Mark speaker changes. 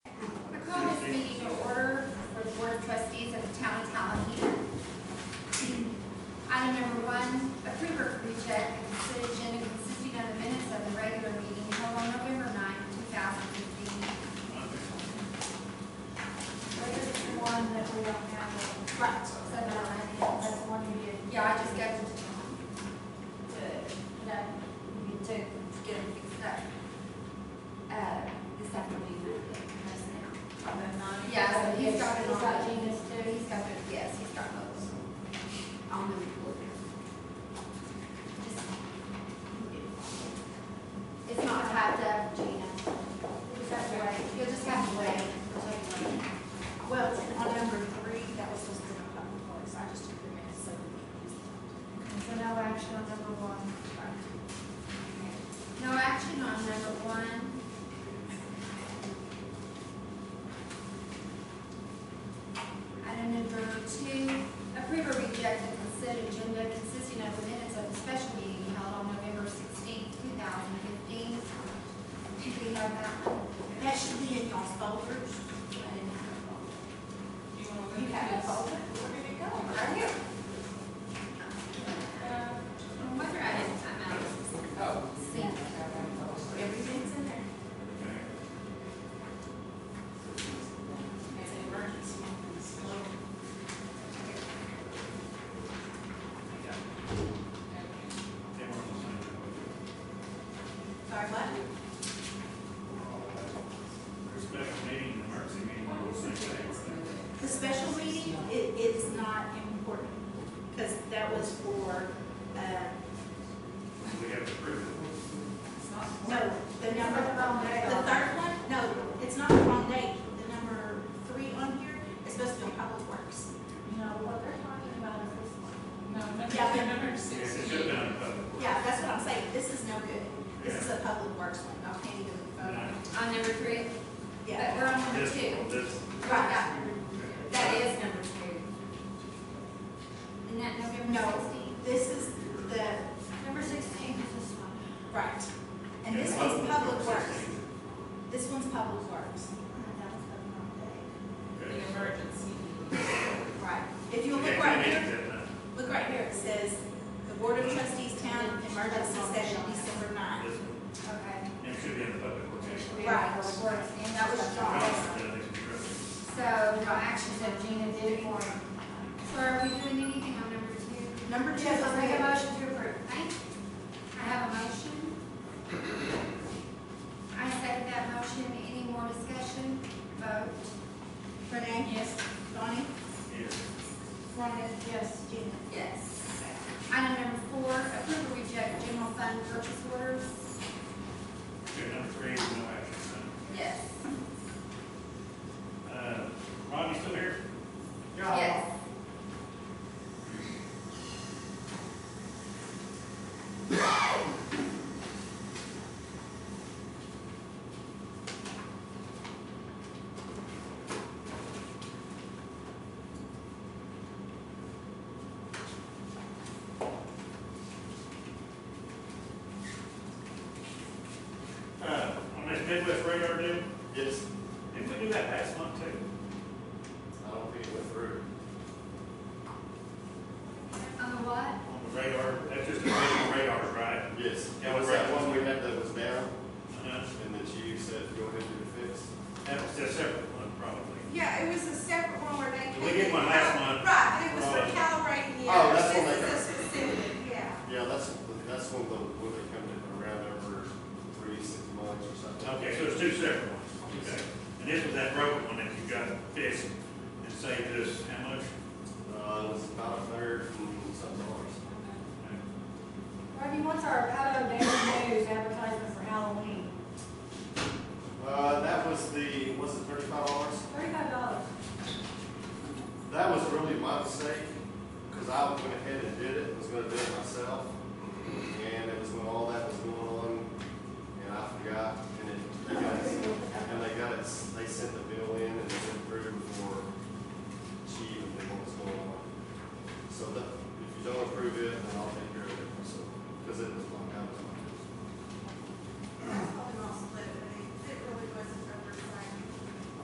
Speaker 1: committees of the town of Tallahassee. Item number one, approve or reject the consent agenda consisting of the minutes of the regular meeting held on November 9, thousand fifteen.
Speaker 2: But this is the one that we don't have.
Speaker 1: Right. So that I,
Speaker 2: That's the one you did.
Speaker 1: yeah, I just got to Tom.
Speaker 2: Good. That you took
Speaker 1: to get them fixed up. Uh, this afternoon, I think, just now. Yeah, so he's got it
Speaker 2: He's got
Speaker 1: on.
Speaker 2: Gina's too.
Speaker 1: He's got it, yes, he's got those. On the report. Just- It's not typed up, Gina.
Speaker 2: You just have to wait.
Speaker 1: You'll just have to wait. until you-
Speaker 3: Well, it's on number three, that was just in the public voice, I just took the minutes, so.
Speaker 2: So no action on number one.
Speaker 1: No action on number one. Item number two, approve or reject the consent agenda consisting of the minutes of the special meeting held on November sixteenth, two thousand fifteen. Do we have that one?
Speaker 3: That should be in y'all's folders.
Speaker 1: I didn't have it all.
Speaker 4: You want
Speaker 3: You have a folder? Where did it go? Right here.
Speaker 1: I wonder I didn't time out.
Speaker 4: Oh.
Speaker 1: See,
Speaker 3: Everything's in there. It's an emergency. Sorry, what?
Speaker 5: Special meeting, emergency meeting, all the same thing, right?
Speaker 3: The special meeting, it, it's not important, because that was for, uh,
Speaker 5: We have to prove it.
Speaker 3: no, the number, the third one, no, it's not the wrong date. The number three on here is supposed to be public works.
Speaker 2: No, what they're talking about is this one.
Speaker 3: Yeah.
Speaker 4: number
Speaker 5: Yeah,
Speaker 4: six.
Speaker 5: it should have been in public.
Speaker 3: Yeah, that's what I'm saying, this is no good. This is a public works one, I can't even, uh,
Speaker 1: On number three, but
Speaker 3: yeah.
Speaker 1: we're on number
Speaker 5: This,
Speaker 1: two.
Speaker 5: this,
Speaker 1: Right, that is number two. And that November
Speaker 3: No.
Speaker 1: sixteenth.
Speaker 3: This is the,
Speaker 1: Number sixteen is this one.
Speaker 3: right, and this one's public works. This one's public works,
Speaker 4: The emergency.
Speaker 3: right. If you
Speaker 5: Okay,
Speaker 3: look
Speaker 5: I
Speaker 3: right
Speaker 5: need
Speaker 3: here,
Speaker 5: that,
Speaker 3: Look right here, it says, "The Board of Trustees Town Emergency Session, December 9th."
Speaker 5: this,
Speaker 1: Okay.
Speaker 5: it should be in the public location.
Speaker 1: And that was John. So, no action, so Gina did it for him. So are we doing anything on number two?
Speaker 3: Number two,
Speaker 2: Yes,
Speaker 3: is
Speaker 2: I'll make a motion to approve.
Speaker 1: Thank you. I have a motion. I second that motion. Any more discussion? Vote.
Speaker 3: Renee? Yes. Donnie? Rhonda?
Speaker 2: Yes.
Speaker 3: Gina?
Speaker 1: Yes. Item number four, approve or reject general fund purchase orders?
Speaker 5: Okay, number three, is no action.
Speaker 1: Yes.
Speaker 5: Uh, Ron, you still here?
Speaker 1: Yes.
Speaker 5: Uh, on this Midwest radar deal,
Speaker 6: Yes,
Speaker 5: didn't we do that last month too?
Speaker 6: I don't think it went through.
Speaker 1: On the what?
Speaker 5: On the radar, that's just a regular radar, right?
Speaker 6: Yes,
Speaker 5: Yeah,
Speaker 6: it was that one we had that was down,
Speaker 5: Uh,
Speaker 6: and that you said go ahead and do the fix.
Speaker 5: That was a separate one, probably.
Speaker 3: Yeah, it was a separate one where they.
Speaker 5: We did one last month.
Speaker 3: Right,
Speaker 5: it was for
Speaker 3: calibrating
Speaker 6: the Oh, that's others. what they This
Speaker 3: specific, yeah.
Speaker 6: Yeah, that's, that's one of the, when they come to around every three, six months or something.
Speaker 5: Okay, so it's two separate ones, okay. And this was that broken one that you got fixed and saved us how much?
Speaker 6: Uh, it was about a third and some dollars.
Speaker 2: Randy, what's our Palo Daily News advertisement for Halloween?
Speaker 6: Uh, that was the, was it thirty-five dollars?
Speaker 2: Thirty-five dollars.
Speaker 6: That was really my mistake, because I went ahead and did it, was gonna do it myself. And it was when all that was going on, and I forgot, and it, they got it, and they got it, they